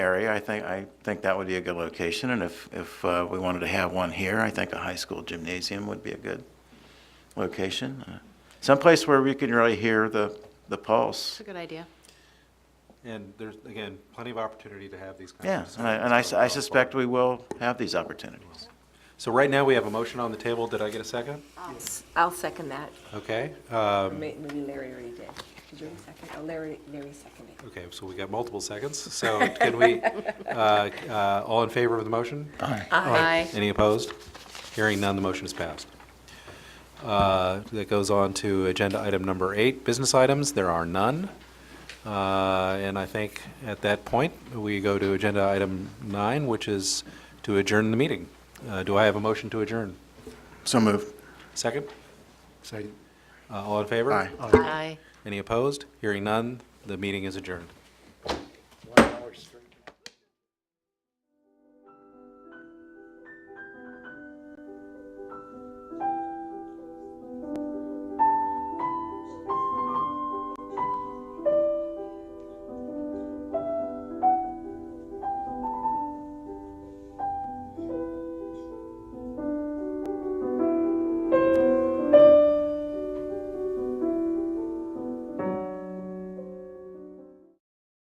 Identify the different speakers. Speaker 1: area, I think, I think that would be a good location, and if, if uh, we wanted to have one here, I think a high school gymnasium would be a good location. Uh, Someplace where we can really hear the, the
Speaker 2: It's
Speaker 1: pulse.
Speaker 2: a good idea.
Speaker 3: And there's, again, plenty of opportunity to have these kinds of
Speaker 1: Yeah,
Speaker 3: discussions.
Speaker 1: and I- and I s-
Speaker 3: going
Speaker 1: I
Speaker 3: forward.
Speaker 1: suspect we will have these opportunities.
Speaker 3: So right now, we have a motion on the table. Did I get a second?
Speaker 4: I'll second that.
Speaker 3: Okay. um,
Speaker 4: Maybe Larry already did. Did you second? Oh, Larry, Larry seconded.
Speaker 3: Okay, so we got multiple seconds. So can we, uh, uh, all in favor of the motion?
Speaker 2: Aye.
Speaker 3: Any opposed? Hearing none, the motion is passed. Uh, That goes on to agenda item number eight, business items. There are none. Uh, And I think at that point, we go to agenda item nine, which is to adjourn the meeting. Uh, Do I have a motion to adjourn?
Speaker 1: So moved.
Speaker 3: Second?
Speaker 5: Second.
Speaker 3: Uh, All in favor?
Speaker 1: Aye.
Speaker 2: Aye.
Speaker 3: Any opposed? Hearing none, the meeting is adjourned.